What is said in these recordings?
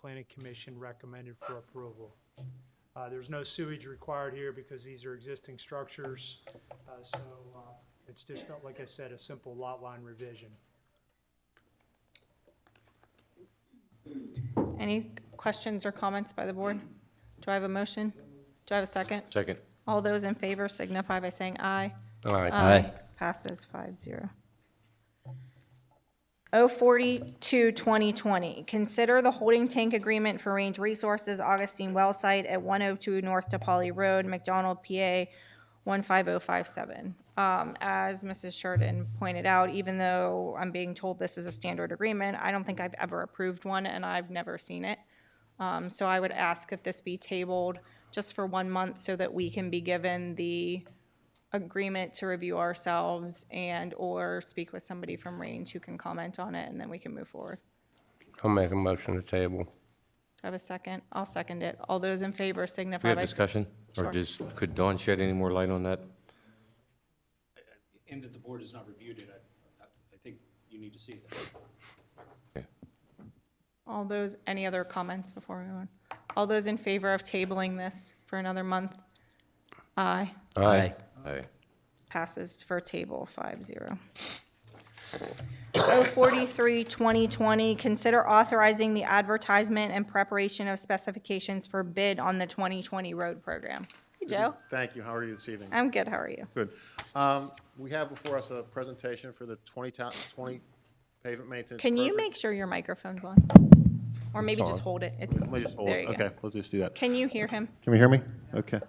planning commission recommended for approval. Uh, There's no sewage required here because these are existing structures, uh, so uh, it's just, uh, like I said, a simple lot line revision. Any questions or comments by the board? Do I have a motion? Do I have a second? Second. All those in favor signify by saying aye. Aye. Aye. Um, Passes five zero. O forty-two, twenty twenty, consider the holding tank agreement for Range Resources Augustine Well Site at one oh two North DePauli Road, McDonald, PA, one five oh five seven. Um, as Mrs. Sheridan pointed out, even though I'm being told this is a standard agreement, I don't think I've ever approved one, and I've never seen it. Um, so I would ask that this be tabled just for one month so that we can be given the agreement to review ourselves and/or speak with somebody from Range who can comment on it, and then we can move forward. I'll make a motion to Do table. I have a second? I'll second it. All those in favor We signify have by. discussion, Sure. or just, could Dawn shed any more light on that? and that the board has not reviewed it, I, I- I think you need to see that. All those, any other comments before we move on? All those in favor of tabling this for another month? Aye. Aye. Aye. passes for table five zero. O forty-three, twenty twenty, consider authorizing the advertisement and preparation of specifications for bid on the twenty twenty road program. Hey, Joe, Thank you. How are you this evening? I'm good, how are you? Good. Um, We have before us a presentation for the 20 ta- 20 pavement maintenance. Can you program. make sure your microphone's on? Or maybe just on. hold it, it's, Let me just hold there it. you go. Okay, let's just do that. Can you hear him? Can we hear me? Okay.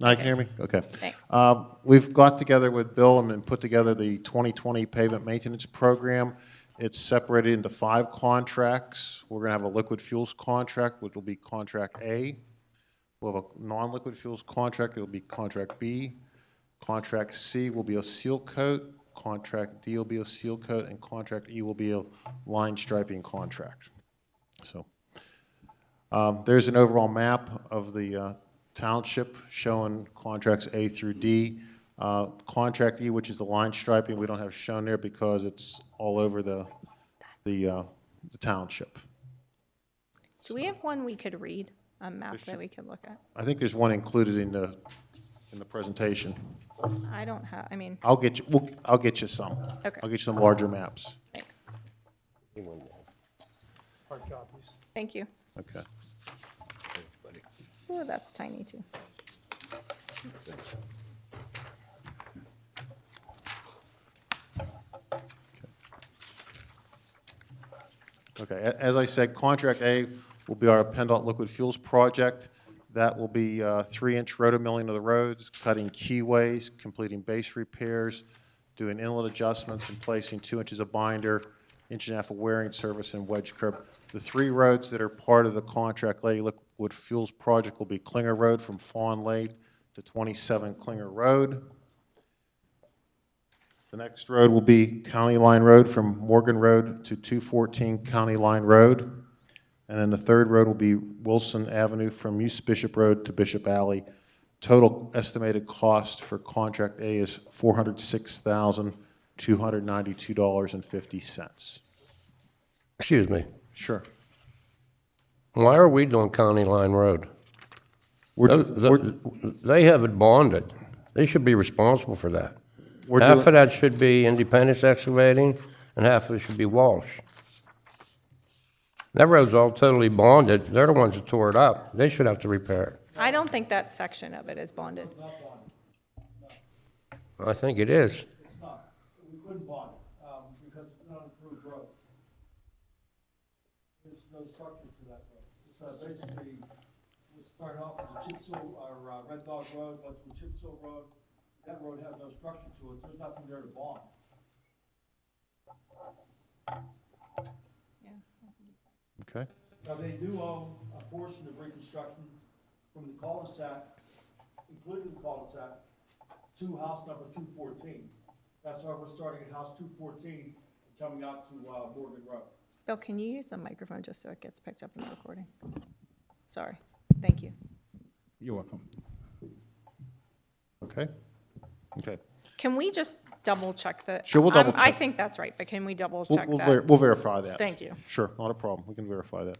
Now you can hear me? Okay. Thanks. Um, We've got together with Bill and then put together the 2020 pavement maintenance program. It's separated into five contracts. We're going to have a liquid fuels contract, which will be contract A. We'll have a non-liquid fuels contract, it'll be contract B. Contract C will be a seal coat, contract D will be a seal coat, and contract E will be a line striping contract. So um, There's an overall map of the uh, township showing contracts A through D. Uh, Contract E, which is the line striping, we don't have shown there because it's all over the, the uh, the township. Do we have one we could read, a map that we could look at? I think there's one included in the, in the presentation. I don't have, I mean, I'll get you, we'll- I'll get you some. Okay. I'll get you some larger maps. thanks, Hard copies. thank you. Okay. Ooh, that's tiny too. Okay, a- as I said, contract A will be our PennDOT liquid fuels project. That will be uh, three-inch rotomilling of the roads, cutting keyways, completing base repairs, doing inlet adjustments, and placing two inches of binder, inch and a half of wearing service, and wedge curb. The three roads that are part of the contract A liquid fuels project will be Klinger Road from Fawn Lake to 27 Klinger Road. The next road will be County Line Road from Morgan Road to 214 County Line Road. And then the third road will be Wilson Avenue from East Bishop Road to Bishop Alley. Total estimated cost for contract A is $406,292.50. Excuse me. Sure. Why are we doing County Line Road? We're- Those- We're th- They have it bonded. They should be responsible for that. we're Half of doing, that should be Independence Excavating, and half of it should be Walsh. That road's all totally bonded. They're the ones that tore it up. They should have to repair it. I don't think that section of it is bonded. I think it is. It's not. We couldn't bond it, um, because it's not an approved road. There's no structure to that road. So basically, we started off as a chip seal, or, uh, Red Dog Road, went to a chip seal road. That road has no structure to it. There's nothing there to bond. okay. Now, they do own a portion of reconstruction from the cul-de-sac, including the cul-de-sac, to house number two fourteen. That's why we're starting at house two fourteen, and coming out to, uh, Morgan Road. Bill, can you use the microphone just so it gets picked up in the recording? Sorry, thank you. You're welcome. Okay? Okay. Can we just double check that? Sure, we'll I'm- double I check. think that's right, but can we double We'll- check we'll ver- that? We'll verify that. Thank you. Sure, not a problem. We can verify that.